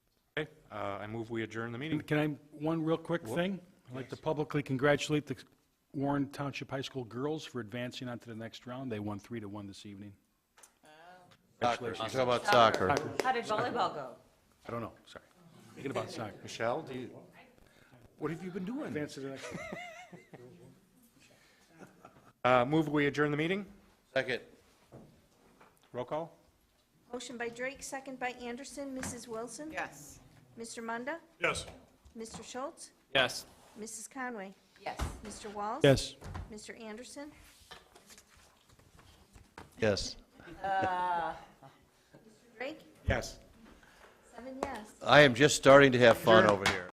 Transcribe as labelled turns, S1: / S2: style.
S1: Uh, I move we adjourn the meeting.
S2: And Can I, one real quick thing? I'd like to publicly congratulate the Warren Township High School girls for advancing on to the next round. They won three to one this evening.
S3: Soccer. Talk about soccer.
S4: How did volleyball go?
S2: I don't know, sorry. Thinking about soccer.
S1: Michelle, do you, what have you been doing?
S2: Advance to the next round.
S1: Uh, Move we adjourn the meeting?
S3: Second.
S1: Roll call?
S5: Motion by Drake, second by Anderson. Mrs. Wilson?
S4: Yes.
S5: Mr. Munda?
S6: Yes.
S5: Mr. Schultz?
S6: Yes.
S5: Mrs. Conway?
S4: Yes.
S5: Mr. Walls?
S2: Yes.
S5: Mr. Anderson?
S3: Yes.
S5: Drake?
S1: Yes.
S5: Seven yes.
S3: I am just starting to have fun over here.